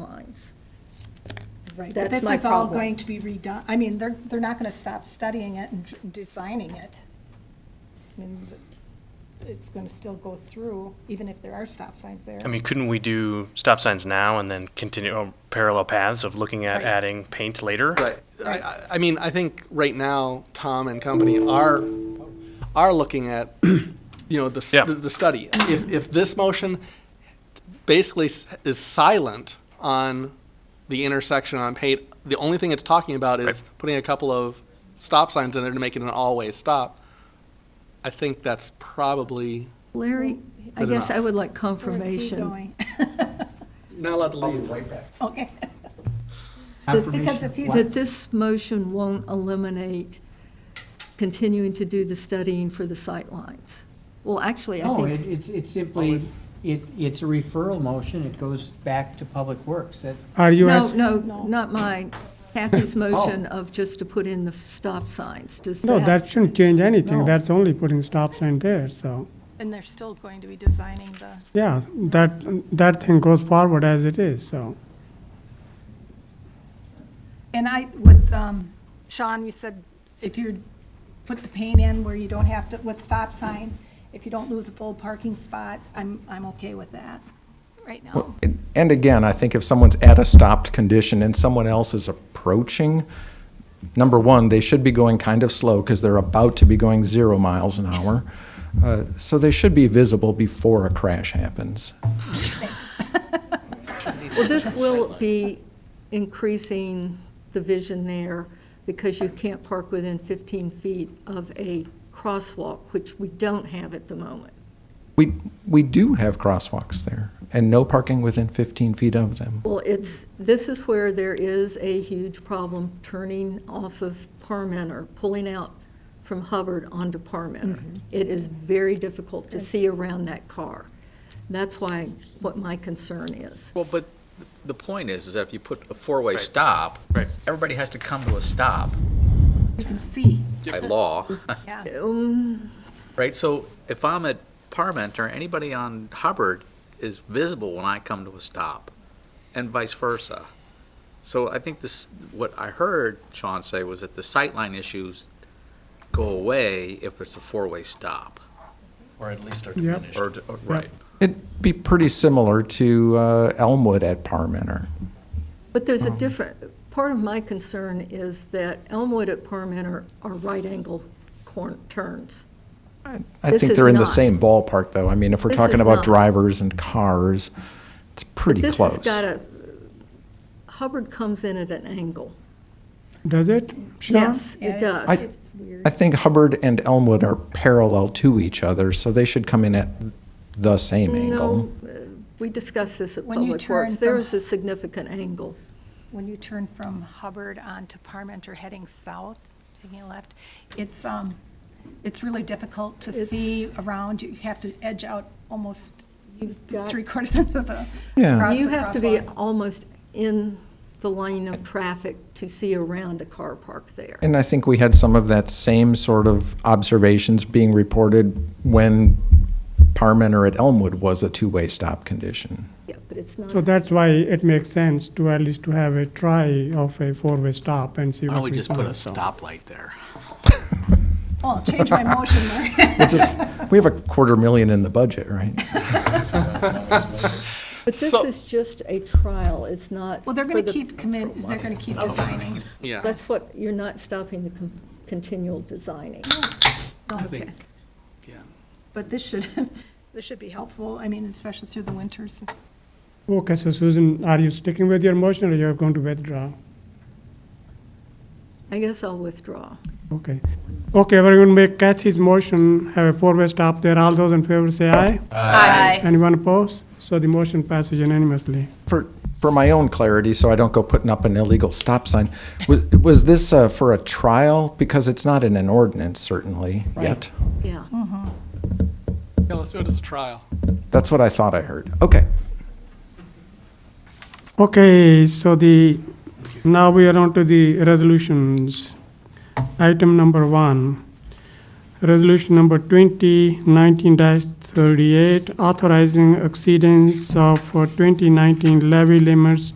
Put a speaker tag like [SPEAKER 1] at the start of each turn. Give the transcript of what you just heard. [SPEAKER 1] lines.
[SPEAKER 2] Right,
[SPEAKER 1] That's
[SPEAKER 2] but this
[SPEAKER 1] my
[SPEAKER 2] is all
[SPEAKER 1] problem.
[SPEAKER 2] going to be redone, I mean, they're, they're not gonna stop studying it and designing it. I mean, th- it's gonna still go through, even if there are stop signs there.
[SPEAKER 3] I mean, couldn't we do stop signs now and then continue on parallel paths of looking at
[SPEAKER 2] Right.
[SPEAKER 3] adding paint later?
[SPEAKER 4] Right. I, I- I mean, I think right now, Tom and company are, are looking at, you know, the, s-
[SPEAKER 3] Yeah.
[SPEAKER 4] the the study. If, if this motion basically s- is silent on the intersection on Pate, the only thing it's talking about is
[SPEAKER 3] Right.
[SPEAKER 4] putting a couple of stop signs in there to make it an all-way stop, I think that's probably
[SPEAKER 1] Larry, I
[SPEAKER 4] Good
[SPEAKER 1] guess I
[SPEAKER 4] enough.
[SPEAKER 1] would like
[SPEAKER 2] Where's he
[SPEAKER 1] confirmation.
[SPEAKER 2] going?
[SPEAKER 4] not allowed to leave.
[SPEAKER 2] Okay, because
[SPEAKER 5] Confirmation.
[SPEAKER 2] if he's,
[SPEAKER 1] That this motion won't eliminate continuing to do the studying for the sightlines. Well, actually, I
[SPEAKER 6] Oh,
[SPEAKER 5] No,
[SPEAKER 1] think,
[SPEAKER 5] it- it's, it's simply, it, it's a referral motion, it goes back to Public Works. That-
[SPEAKER 6] Are you
[SPEAKER 1] no,
[SPEAKER 6] asking? Oh.
[SPEAKER 1] no, not mine. Kathy's motion of just to put in the stop signs, does that?
[SPEAKER 6] No, that shouldn't change anything.
[SPEAKER 5] No.
[SPEAKER 6] That's only putting stop sign there, so,
[SPEAKER 2] and they're still going to be designing the,
[SPEAKER 6] yeah, that, that thing goes forward as it is, so.
[SPEAKER 2] and I, with, um, Sean, you said if you put the paint in where you don't have to, with stop signs, if you don't lose a full parking spot, I'm, I'm okay with that, right now.
[SPEAKER 7] And again, I think if someone's at a stopped condition and someone else is approaching, number one, they should be going kind of slow because they're about to be going zero miles an hour. Uh, So they should be visible before a crash happens.
[SPEAKER 1] Well, this will be increasing the vision there because you can't park within 15 feet of a crosswalk, which we don't have at the moment.
[SPEAKER 7] We, we do have crosswalks there and no parking within 15 feet of them.
[SPEAKER 1] Well, it's, this is where there is a huge problem turning off of Parmenter, pulling out from Hubbard onto Parmenter. It is very difficult to see around that car. That's why, what my concern is.
[SPEAKER 8] Well, but the point is, is that if you put a four-way stop,
[SPEAKER 3] Right.
[SPEAKER 8] everybody has to come to a stop
[SPEAKER 2] You can see,
[SPEAKER 8] by law,
[SPEAKER 2] yeah.
[SPEAKER 1] Um,
[SPEAKER 8] right? So if I'm at Parmenter, anybody on Hubbard is visible when I come to a stop, and vice versa. So I think this, what I heard Sean say was that the sightline issues go away if it's a four-way stop,
[SPEAKER 9] Or at least are
[SPEAKER 6] Yep.
[SPEAKER 9] diminished.
[SPEAKER 8] or, or- right?
[SPEAKER 7] It'd be pretty similar to uh, Elmwood at Parmenter.
[SPEAKER 1] But there's a
[SPEAKER 7] Oh.
[SPEAKER 1] different, part of my concern is that Elmwood at Parmenter are right-angle corn, turns.
[SPEAKER 7] I
[SPEAKER 1] This
[SPEAKER 7] think
[SPEAKER 1] is
[SPEAKER 7] they're in the
[SPEAKER 1] not.
[SPEAKER 7] same ballpark, though. I mean, if we're
[SPEAKER 1] This
[SPEAKER 7] talking
[SPEAKER 1] is
[SPEAKER 7] about
[SPEAKER 1] not.
[SPEAKER 7] drivers and cars, it's
[SPEAKER 1] But
[SPEAKER 7] pretty
[SPEAKER 1] this
[SPEAKER 7] close.
[SPEAKER 1] has got a, Hubbard comes in at an angle.
[SPEAKER 6] Does it? Sean?
[SPEAKER 1] Yes, it does.
[SPEAKER 7] I- I think Hubbard and Elmwood are parallel to each other, so they should come in at the same angle.
[SPEAKER 1] No, uh, we discussed this at
[SPEAKER 2] When you
[SPEAKER 1] Public
[SPEAKER 2] turn
[SPEAKER 1] Works.
[SPEAKER 2] from-
[SPEAKER 1] There is a significant angle.
[SPEAKER 2] when you turn from Hubbard onto Parmenter heading south, taking a left, it's, um, it's really difficult to see around. You have to edge out almost
[SPEAKER 1] got-
[SPEAKER 2] three quarters of the.
[SPEAKER 7] Yeah.
[SPEAKER 2] across
[SPEAKER 1] You
[SPEAKER 2] the
[SPEAKER 1] have to be
[SPEAKER 2] crosswalk.
[SPEAKER 1] almost in the lane of traffic to see around a car parked there.
[SPEAKER 7] And I think we had some of that same sort of observations being reported when Parmenter at Elmwood was a two-way stop condition.
[SPEAKER 1] Yeah, but it's
[SPEAKER 6] So
[SPEAKER 1] not,
[SPEAKER 6] that's why it makes sense to at least to have a try of a four-way stop and see
[SPEAKER 8] Why don't
[SPEAKER 6] what
[SPEAKER 8] we
[SPEAKER 6] we
[SPEAKER 8] just put a
[SPEAKER 6] find, so.
[SPEAKER 8] stoplight there?
[SPEAKER 2] Oh, I'll change my motion there.
[SPEAKER 7] It's just, we have a quarter million in the budget, right?
[SPEAKER 1] but this
[SPEAKER 4] So-
[SPEAKER 1] is just a trial. It's not.
[SPEAKER 2] Well, they're
[SPEAKER 1] for
[SPEAKER 2] gonna
[SPEAKER 1] the-
[SPEAKER 2] keep commit, they're gonna keep designing.
[SPEAKER 4] Yeah.
[SPEAKER 1] That's what, you're not stopping the con- continual designing.
[SPEAKER 2] Okay.
[SPEAKER 4] yeah.
[SPEAKER 2] But this should, this should be helpful, I mean, especially through the winters.
[SPEAKER 6] Okay, so Susan, are you sticking with your motion or you're going to withdraw?
[SPEAKER 1] I guess I'll withdraw.
[SPEAKER 6] Okay. Okay, we're going to make Kathy's motion, have a four-way stop there. All those in favor say aye. Aye. Anyone opposed? So the motion passes unanimously.
[SPEAKER 7] For, for my own clarity, so I don't go putting up an illegal stop sign, was, was this uh, for a trial? Because it's not in an ordinance, certainly, yet.
[SPEAKER 1] Yeah.
[SPEAKER 4] Yeah, let's do it as a trial.
[SPEAKER 7] That's what I thought I heard. Okay.
[SPEAKER 6] Okay, so the, now we are on to the resolutions. Item number one, resolution number twenty nineteen thirty-eight, authorizing exceedance of uh, 2019 levy limits